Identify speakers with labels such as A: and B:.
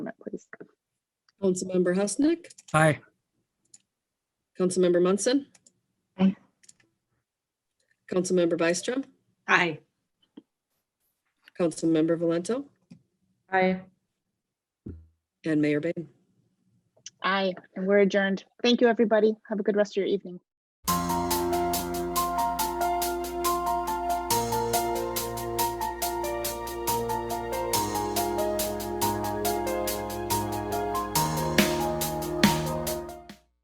A: Councilmember Husnick,
B: Aye.
A: Councilmember Munson.
C: Aye.
A: Councilmember Byström,
D: Aye.
A: Councilmember Valento,
D: Aye.
A: and Mayor Bain.
C: Aye, and we're adjourned. Thank you, everybody. Have a good rest of your evening.